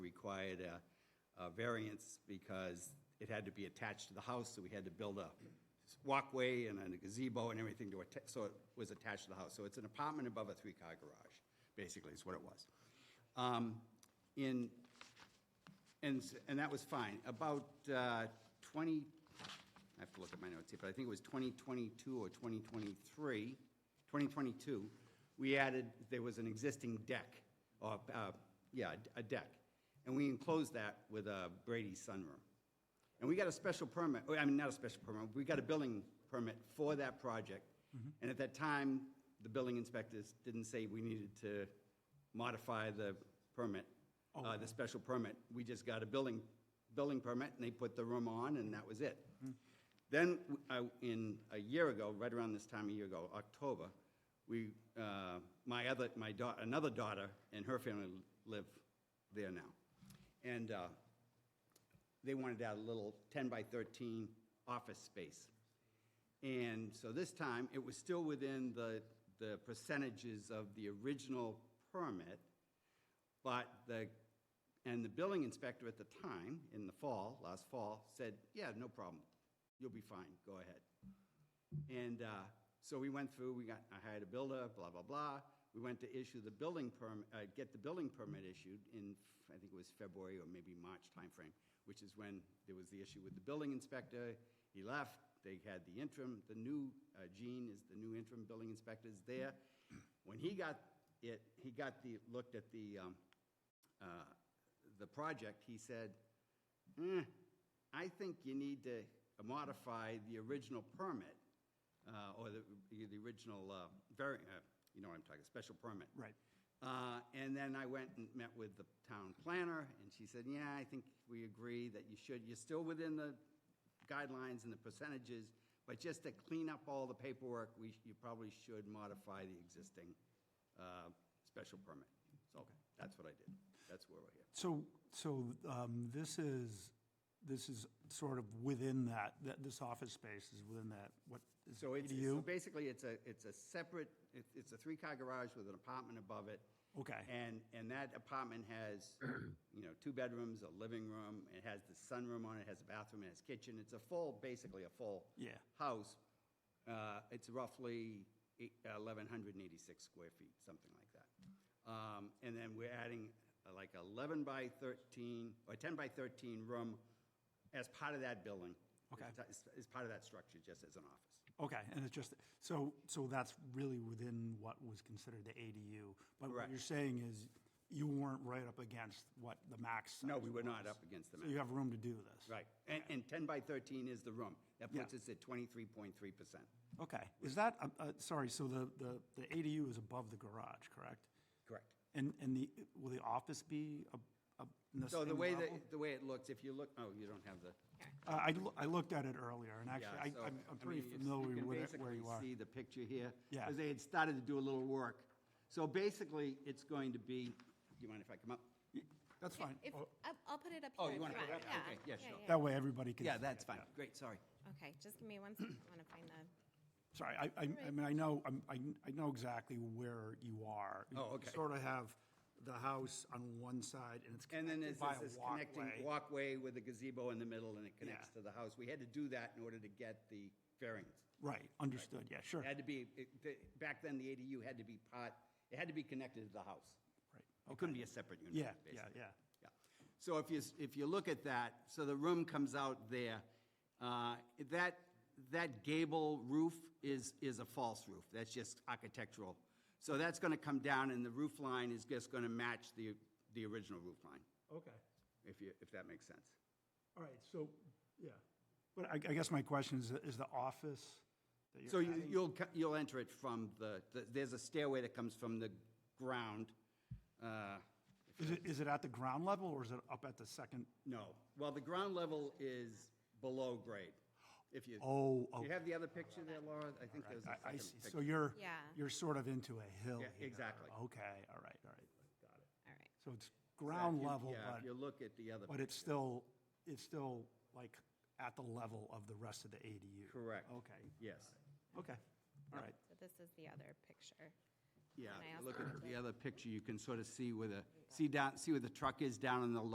required a, a variance because it had to be attached to the house, so we had to build a walkway and a gazebo and everything to, atta- so it was attached to the house. So it's an apartment above a three-car garage, basically, is what it was. Um, In and, s- and that was fine. About uh, 20, I have to look at my notes here, but I think it was 2022 or 2023, 2022, we added, there was an existing deck, or, uh, yeah, a deck. And we enclosed that with a Brady sunroom. And we got a special permit, oh, I mean, not a special permit, we got a building permit for that project. And at that time, the building inspectors didn't say we needed to modify the permit, uh, the special permit. We just got a building, building permit, and they put the room on, and that was it. Then, uh, in, a year ago, right around this time a year ago, October, we, uh, my other, my daughter, another daughter and her family live there now. And uh, they wanted out a little 10 by 13 office space. And so this time, it was still within the, the percentages of the original permit, but the, and the building inspector at the time, in the fall, last fall, said, yeah, no problem, you'll be fine, go ahead. And uh, so we went through, we got, I hired a builder, blah, blah, blah. We went to issue the building permit, uh, get the building permit issued in, I think it was February or maybe March timeframe, which is when there was the issue with the building inspector. He left, they had the interim, the new, uh, Gene is the new interim building inspector is there. When he got it, he got the, looked at the, um, uh, the project, he said, "Eh, I think you need to modify the original permit, uh, or the, the original, uh, vari- uh, you know what I'm talking, special permit. Right. Uh, And then I went and met with the town planner, and she said, yeah, I think we agree that you should, you're still within the guidelines and the percentages, but just to clean up all the paperwork, we, you probably should modify the existing uh, special permit. So that's what I did. That's where we're here. So, so um, this is, this is sort of within that, that this office space is within that, what is So it's, ADU? so basically, it's a, it's a separate, it- it's a three-car garage with an apartment above it. Okay. And, and that apartment has, you know, two bedrooms, a living room, it has the sunroom on it, it has a bathroom, it has kitchen. It's a full, basically a full. Yeah. House. Uh, It's roughly e, eight- 1,186 square feet, something like that. Um, And then we're adding uh, like 11 by 13, or 10 by 13 room as part of that building. Okay. As as part of that structure, just as an office. Okay, and it's just, so, so that's really within what was considered the ADU. But what Correct. you're saying is you weren't right up against what the max size No, we were not was. up against the So you max. have room to do this? Right. And, and 10 by 13 is the room. That puts Yeah. us at 23.3%. Okay, is that, uh, uh, sorry, so the, the, the ADU is above the garage, correct? Correct. And, and the, will the office be up, up in the same So level? the way that, the way it looks, if you look, oh, you don't have the. Uh, I, loo- I looked at it earlier, and actually, Yeah, so, I, I'm, I I'm pretty mean, you- familiar with it, where You you can are. basically see the picture here. Yeah. Because they had started to do a little work. So basically, it's going to be, do you mind if I come up? That's fine. If, Oh, I'll- I'll put it up here. Oh, you if wanna put it want. up? Okay, yeah, sure. That way, everybody can. Yeah, see that's it, fine. yeah. Great, sorry. Okay, just give me one second, I want to find the, Sorry, I, I, I mean, I know, I'm- I, I know exactly where you are. You Oh, okay. Sort of have the house on one side, and it's And then there's connected by this a this connecting walkway. walkway with a gazebo in the middle and it connects Yeah. to the house. We had to do that in order to get the variance. Right, understood, yeah, sure. It had to be, it- the- back then, the ADU had to be part, it had to be connected to the house. Right, It couldn't be a separate unit, Yeah, basically. yeah, yeah. Yeah. So if you, s- if you look at that, so the room comes out there, uh, that, that gable roof is, is a false roof, that's just architectural. So that's gonna come down, and the roof line is just gonna match the, the original roof line, Okay, if you, if that makes sense. all right, so, yeah. But I, I guess my question is, is the office that you're So you- adding- you'll, co- you'll enter it from the, the- there's a stairway that comes from the ground, uh, Is it, is it at the ground level, or is it up at the second? No. Well, the ground level is below grade. If you. Do Oh, you okay. have the other picture there, Laura? I think there's a I, I second see, picture. so you're, Yeah. you're sort of into a hill Yeah, here. exactly. Okay, all right, all right, got it. all right. So it's Yeah, if ground you- level, Yeah, if you but, look at the other. but it's still, it's still like at the level of the rest of the ADU. Correct. Okay, Yes. okay, all right. So this is the other picture. Yeah, And I if you also look at included- the other picture, you can sort of see where the, see down, see where the truck is down in the